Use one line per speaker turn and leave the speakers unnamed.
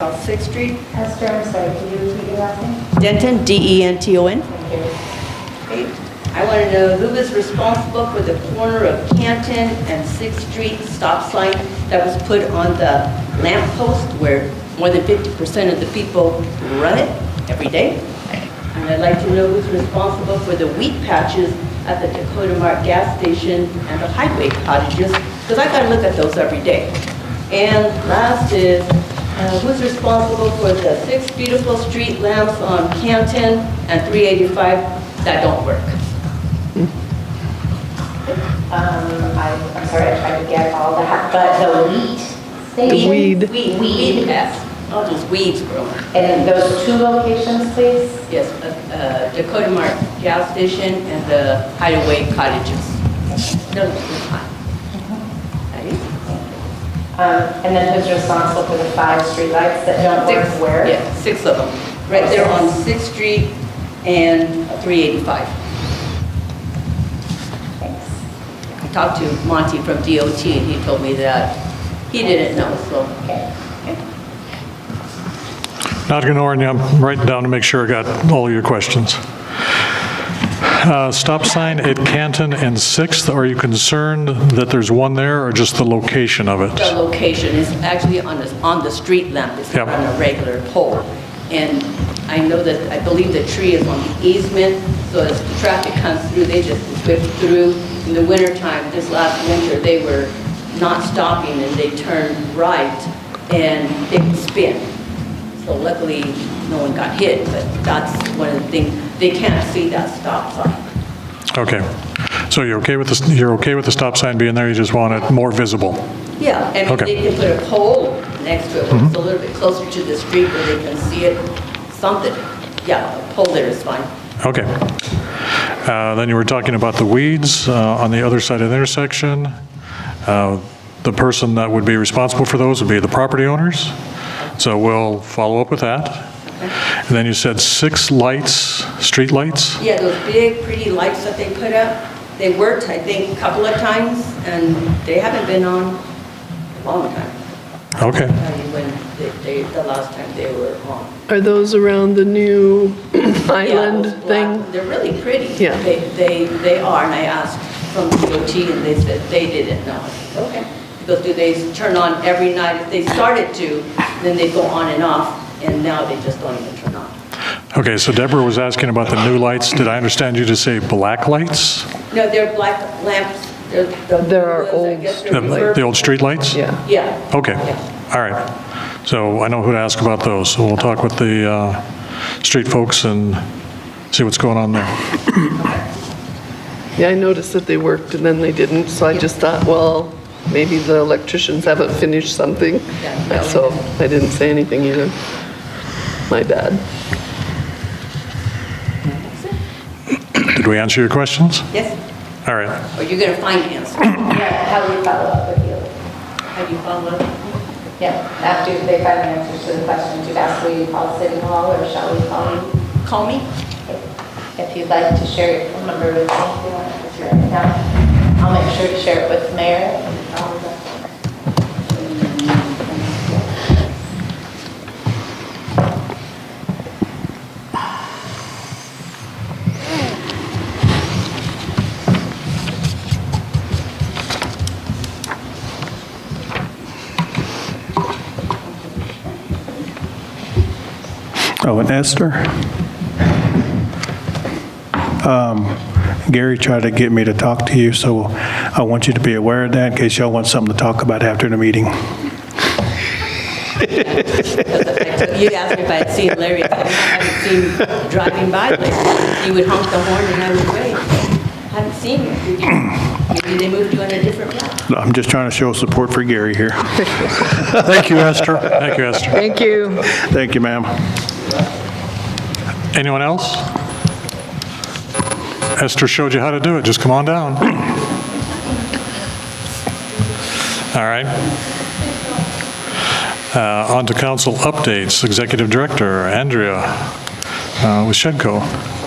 South Sixth Street,
Esther, I'm sorry, can you repeat your last name?
Denton, D-E-N-T-O-N.
Thank you.
I want to know who is responsible for the corner of Canton and Sixth Street stop sign that was put on the lamp post where more than 50% of the people run it every day. And I'd like to know who's responsible for the wheat patches at the Dakota Mart gas station and the highway cottages, because I gotta look at those every day. And last is, uh, who's responsible for the six beautiful street lamps on Canton and 385 that don't work?
Um, I, I'm sorry, I tried to get all that, but the wheat station?
Weed.
Weed, weed pests, all Oh, those weeds growing.
And those two locations, please?
Yes, uh, uh, Dakota Mart gas station and the hideaway cottages. Those are fine. That is-
Um, and then who's responsible for the five streetlights that don't
Six,
work where?
Yeah, six of them, right there on Sixth Street and 385.
Thanks.
I talked to Monty from DOT, and he told me that he didn't know, so.
Okay.
Not going to orient you, I'm writing down to make sure I got all your questions. Uh, Stop sign at Canton and 6th, are you concerned that there's one there or just the location of
The
it?
location is actually on the, on the street lamp, it's not
Yep.
on a regular pole. And I know that, I believe the tree is on the easement, so as the traffic comes through, they just whip through. In the wintertime, this last winter, they were not stopping and they turned right and they could spin. So luckily, no one got hit, but that's one of the things, they can't see that stop sign.
Okay, so you're okay with this, you're okay with the stop sign being there, you just want it more visible?
Yeah, and if
Okay.
they can put a pole next to it, where it's a little bit closer to the street where they can see it, something. Yeah, a pole there is fine.
Okay. Uh, Then you were talking about the weeds uh, on the other side of the intersection. Uh, The person that would be responsible for those would be the property owners, so we'll follow up with that. And then you said six lights, street lights.
Yeah, those big, pretty lights that they put up, they worked, I think, a couple of times, and they haven't been on a long time.
Okay.
I tell you when they, they- the last time they were on.
Are those around the new
Yeah,
island
those black-
thing?
They're really pretty.
Yeah.
They, they, they are, and I asked from DOT, and they said they didn't know. Okay. Because do they turn on every night? If they started to, then they go on and off, and now they just don't even turn on.
Okay, so Deborah was asking about the new lights. Did I understand you to say black lights?
No, they're black lamps, they're the.
There are
ones, I
old
guess, they're
The
reverb-
the old street lights?
Yeah.
Yeah.
Okay,
Yeah.
all right. So I know who to ask about those, so we'll talk with the uh, street folks and see what's going on there.
Yeah, I noticed that they worked and then they didn't, so I just thought, well, maybe the electricians haven't finished something.
Yeah.
So I didn't say anything either. My bad.
Did we answer your questions?
Yes,
All right.
or you're gonna find answers.
Yeah, how do we follow up with you?
How do you follow up?
Yeah, after they find the answers to the questions you've asked, will you call City Hall or shall we call you?
Call me?
If you'd like to share your phone number with me, if you want to share it now, I'll make sure to share it with Mayor. and all of us.
Oh, and Esther? Um, Gary tried to get me to talk to you, so I want you to be aware of that in case y'all want something to talk about after the meeting.
You asked me if I had seen Larry, I haven't seen him driving by, but he would honk the horn and I would wait. Haven't seen him. Maybe they moved you on a different route.
I'm just trying to show support for Gary here.
Thank you, Esther. Thank you, Esther.
Thank you.
Thank you, ma'am.
Anyone else? Esther showed you how to do it, just come on down. All right. Uh, On to council updates, Executive Director Andrea uh, with Shedco.